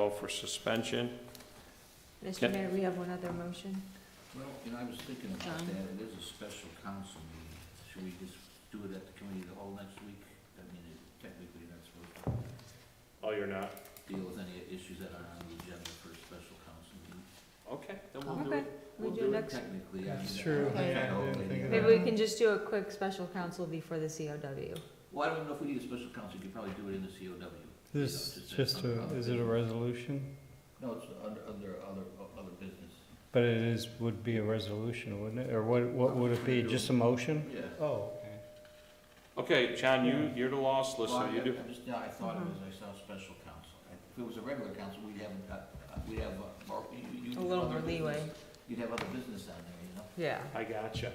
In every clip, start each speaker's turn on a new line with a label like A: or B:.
A: vote for suspension.
B: Mr.
A: Yep.
B: Mayor, we have one other motion.
C: Well, and I was thinking about
B: John?
C: that, it is a special council meeting, should we just do it at the committee of the whole next week? I mean, it- technically, that's supposed
A: Oh, you're not?
C: to deal with any issues that are on the agenda for a special council meeting.
A: Okay, then we'll do
B: Okay,
A: it.
B: we
C: We'll
B: do
C: do it
B: next,
C: technically, I mean.
D: That's
C: I
D: true.
C: don't think
D: Yeah,
C: the whole
D: I didn't
C: thing-
D: think of
B: maybe we can just do a quick special council before the COW.
C: Well, I don't know if we need a special council, you could probably do it in the COW.
D: This
C: Just-
D: just a, is it a resolution?
C: No, it's under, under other, other business.
D: But it is, would be a resolution, wouldn't it? Or what, what would it be? Just a motion?
C: Yeah.
D: Oh,
A: Okay, John, you, you're the lost
C: Well,
A: listener,
C: I-
A: you do.
C: I just, yeah, I thought it was,
B: Mm-hmm.
C: I saw special counsel. If it was a regular counsel, we'd have, uh, uh, we'd have, uh, more- you- you- you'd
B: A
C: have
B: little
C: other
B: more leeway,
C: business- You'd have other business on there, you know?
B: yeah.
A: I gotcha.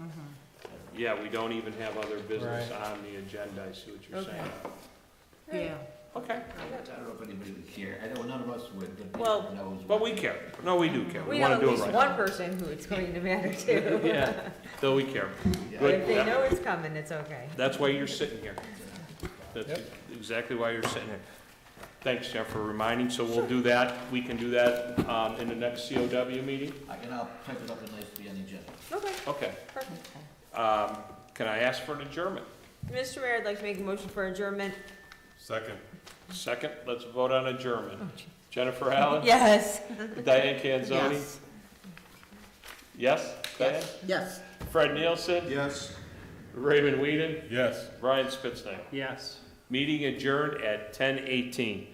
B: Mm-hmm.
A: Yeah, we don't even have other business on the agenda, I see what you're
B: Okay.
A: saying.
B: Yeah.
A: Okay,
C: I don't know if anybody would care. I know none of us would, but
B: Well-
C: everyone knows.
A: but
C: what-
A: we care. No, we do care. We
B: We know
A: want
B: at
A: to do
B: least
A: it right.
B: one person who it's going to matter to.
A: Yeah, though we care.
C: Yeah.
B: But
A: Good.
B: if they know it's coming, it's okay.
A: That's why you're sitting here. That's
D: Yep.
A: exactly why you're sitting here. Thanks, Jeff, for reminding. So we'll do that. We can do that um, in the next COW meeting?
C: I can, I'll type it up and nice to be on the agenda.
B: Okay,
A: Okay.
B: perfect.
A: Um, Can I ask for an adjournment?
B: Mr. Mayor, I'd like to make a motion for adjournment.
E: Second.
A: Second, let's vote on adjournment. Jennifer Allen?
B: Yes.
A: Diane Canzoni? Yes? Diane?
B: Yes.
A: Fred Nielsen?
E: Yes.
A: Raymond Whedon?
E: Yes.
A: Brian Spitznagle?
D: yes.
A: Meeting adjourned at ten eighteen.